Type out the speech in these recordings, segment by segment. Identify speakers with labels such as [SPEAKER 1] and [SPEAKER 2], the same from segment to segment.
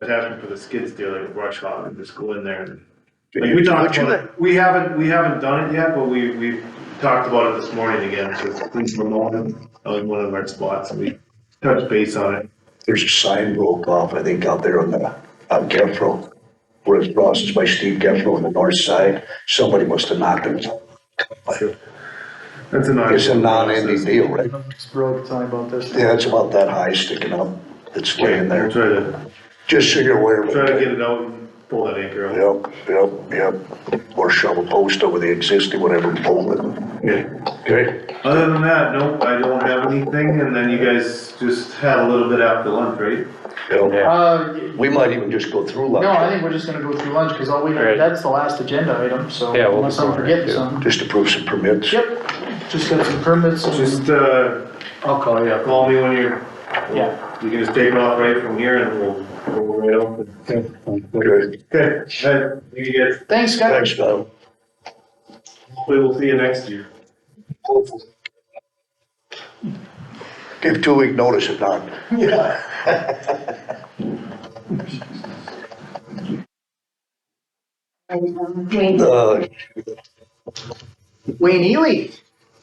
[SPEAKER 1] It happened for the skid steer, like brush hog, and just go in there and.
[SPEAKER 2] Did
[SPEAKER 1] Like,
[SPEAKER 2] you-
[SPEAKER 1] we talked
[SPEAKER 2] what you
[SPEAKER 1] about,
[SPEAKER 2] like?
[SPEAKER 1] it. we haven't, we haven't done it yet, but we, we talked about it this morning again, so it's been promoted, uh, in one of our spots, and we touched base on it.
[SPEAKER 2] There's a sign broke off, I think, out there on the, on Geffro, where it's processed by Steve Geffro on the north side. Somebody must have knocked it.
[SPEAKER 1] That's a non.
[SPEAKER 2] It's a non-ending deal, right?
[SPEAKER 3] Broke, talking about this.
[SPEAKER 2] Yeah, it's about that high sticking up, that's laying
[SPEAKER 1] We'll
[SPEAKER 2] there,
[SPEAKER 1] try to,
[SPEAKER 2] just so you're aware of
[SPEAKER 1] try to
[SPEAKER 2] it.
[SPEAKER 1] get it out and pull that anchor out.
[SPEAKER 2] Yep, yep, yep, or shove a post over the existing, whatever, and pull it.
[SPEAKER 1] Yeah.
[SPEAKER 2] Okay,
[SPEAKER 1] Other than that, nope, I don't have anything, and then you guys just had a little bit after lunch, right?
[SPEAKER 2] yep.
[SPEAKER 3] Uh, y-
[SPEAKER 2] We might even just go through
[SPEAKER 3] no, I
[SPEAKER 2] lunch,
[SPEAKER 3] think we're just gonna go through lunch, because all we,
[SPEAKER 4] Right.
[SPEAKER 3] that's the last agenda item, so
[SPEAKER 4] Yeah, we'll
[SPEAKER 3] unless I'm
[SPEAKER 4] go right
[SPEAKER 3] forgetting
[SPEAKER 4] to-
[SPEAKER 3] something.
[SPEAKER 2] just to prove some permits.
[SPEAKER 3] Yep, just got some permits and
[SPEAKER 1] Just, uh,
[SPEAKER 3] I'll call you up.
[SPEAKER 1] call me when you're,
[SPEAKER 3] Yeah,
[SPEAKER 1] you can just take off right from here and we'll, we'll right off.
[SPEAKER 2] Okay,
[SPEAKER 1] Okay, all right, you guys,
[SPEAKER 3] thanks, guys.
[SPEAKER 2] thanks, Tom.
[SPEAKER 1] hopefully we'll see you next year.
[SPEAKER 2] Give two week notice if not. Uh, Yeah.
[SPEAKER 5] Wayne,
[SPEAKER 2] Uh,
[SPEAKER 3] Wayne Ely.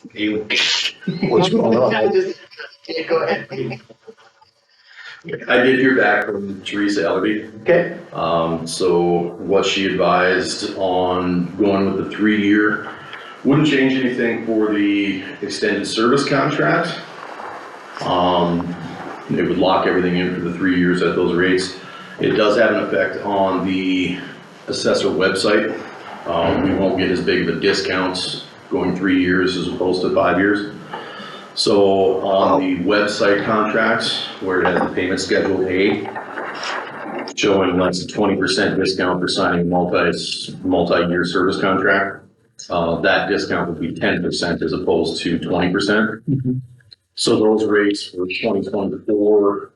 [SPEAKER 2] what's going on?
[SPEAKER 3] Go ahead.
[SPEAKER 6] I did hear back from Teresa Ellerby.
[SPEAKER 3] Okay,
[SPEAKER 6] Um, so what she advised on going with the three-year wouldn't change anything for the extended service contract. Um, it would lock everything in for the three years at those rates. It does have an effect on the assessor website. Um, we won't get as big of a discount going three years as opposed to five years. So on the website contracts, where it has the payment schedule A, showing less than twenty percent discount for signing multi, multi-year service contract. Uh, that discount would be ten percent as opposed to twenty percent. So those rates were twenty twenty-four,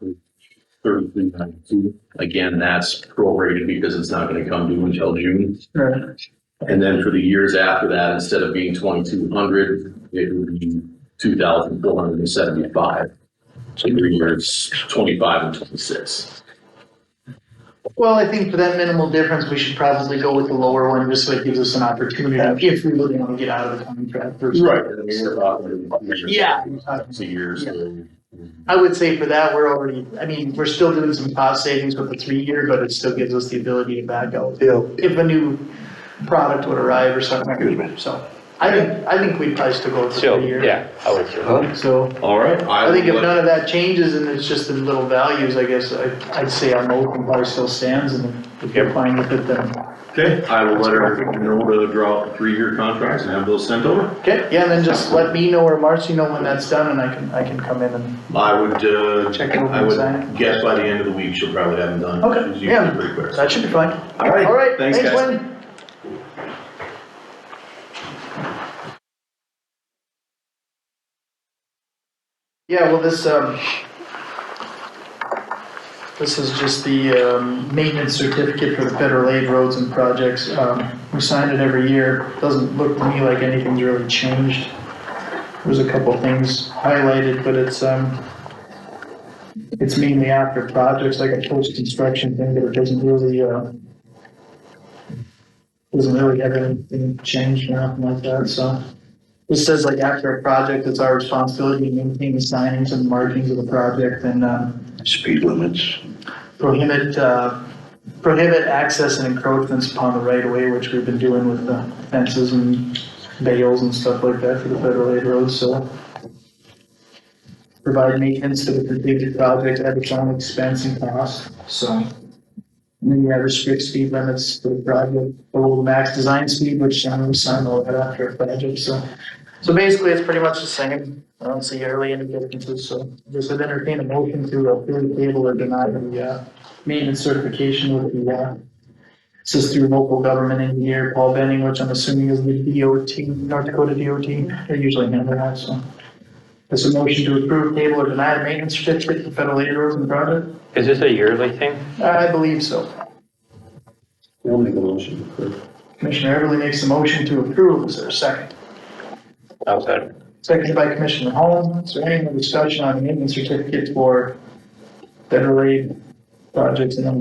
[SPEAKER 6] thirty-three ninety-two. Again, that's prorated because it's not gonna come due until June.
[SPEAKER 3] Right.
[SPEAKER 6] And then for the years after that, instead of being twenty-two hundred, it would be two thousand four hundred and seventy-five. So three years, twenty-five and twenty-six.
[SPEAKER 3] well, I think for that minimal difference, we should probably go with the lower one, just so it gives us an opportunity if we really want to get out of the contract. or-
[SPEAKER 6] Right. I mean, we're talking years.
[SPEAKER 3] Yeah.
[SPEAKER 6] It's a year, so.
[SPEAKER 3] I would say for that, we're already, I mean, we're still doing some cost savings with the three-year, but it still gives us the ability to back out
[SPEAKER 2] Yeah,
[SPEAKER 3] if a new product would arrive or
[SPEAKER 2] Excuse me.
[SPEAKER 3] something, so. I think, I think we'd probably still go with the
[SPEAKER 4] So,
[SPEAKER 3] three-year.
[SPEAKER 4] yeah, I would say.
[SPEAKER 2] Huh?
[SPEAKER 3] So,
[SPEAKER 6] All right.
[SPEAKER 3] I think if
[SPEAKER 6] will let-
[SPEAKER 3] none of that changes and it's just the little values, I guess, I, I'd say our motion probably still stands and if you're fine with it, then.
[SPEAKER 6] Okay, I will let her know to draw up the three-year contracts and have those sent over.
[SPEAKER 3] Okay, yeah, and then just let me know or Marcy know when that's done and I can, I can come in and,
[SPEAKER 6] I would, uh,
[SPEAKER 3] Check it over
[SPEAKER 6] I
[SPEAKER 3] inside.
[SPEAKER 6] would guess by the end of the week, she'll probably have them done.
[SPEAKER 3] Okay,
[SPEAKER 6] She's
[SPEAKER 3] yeah.
[SPEAKER 6] usually pretty quick.
[SPEAKER 3] that should be fine.
[SPEAKER 6] All right,
[SPEAKER 3] All right,
[SPEAKER 6] thanks,
[SPEAKER 3] thanks,
[SPEAKER 6] guys.
[SPEAKER 3] Lynn. Yeah, well, this, um, this is just the, um, maintenance certificate for the federal aid roads and projects. Um, we sign it every year. Doesn't look to me like anything's really changed. There's a couple things highlighted, but it's, um, it's mainly after projects, like a post-construction thing, but it doesn't really, uh, doesn't really have anything changed or nothing like that, so. It says like after a project, it's our responsibility to maintain the signings and markings of the project and, um,
[SPEAKER 2] speed limits.
[SPEAKER 3] prohibit, uh, prohibit access and encroachments upon the right of way, which we've been doing with the fences and bales and stuff like that for the federal aid roads, so. Provide maintenance to the completed project at its own expense and cost, so. And then you have restrict speed limits for the project, below the max design speed, which I'm gonna sign all that after a project, so. So basically, it's pretty much the same. I don't see really any differences, so just would entertain a motion to approve the table or deny the, uh, maintenance certification with the, uh, this is through local government engineer Paul Benning, which I'm assuming is the DOT, North Dakota DOT. They usually handle that, so. It's a motion to approve table or deny the maintenance certificate for federal aid roads and project?
[SPEAKER 4] Is this a yearly thing?
[SPEAKER 3] I believe so.
[SPEAKER 6] We'll make a motion.
[SPEAKER 3] Commissioner Everly makes a motion to approve. Is there a second?
[SPEAKER 4] I'll second.
[SPEAKER 3] Seconded by Commissioner Holm. Is there any more discussion on the maintenance certificate for federal aid projects and then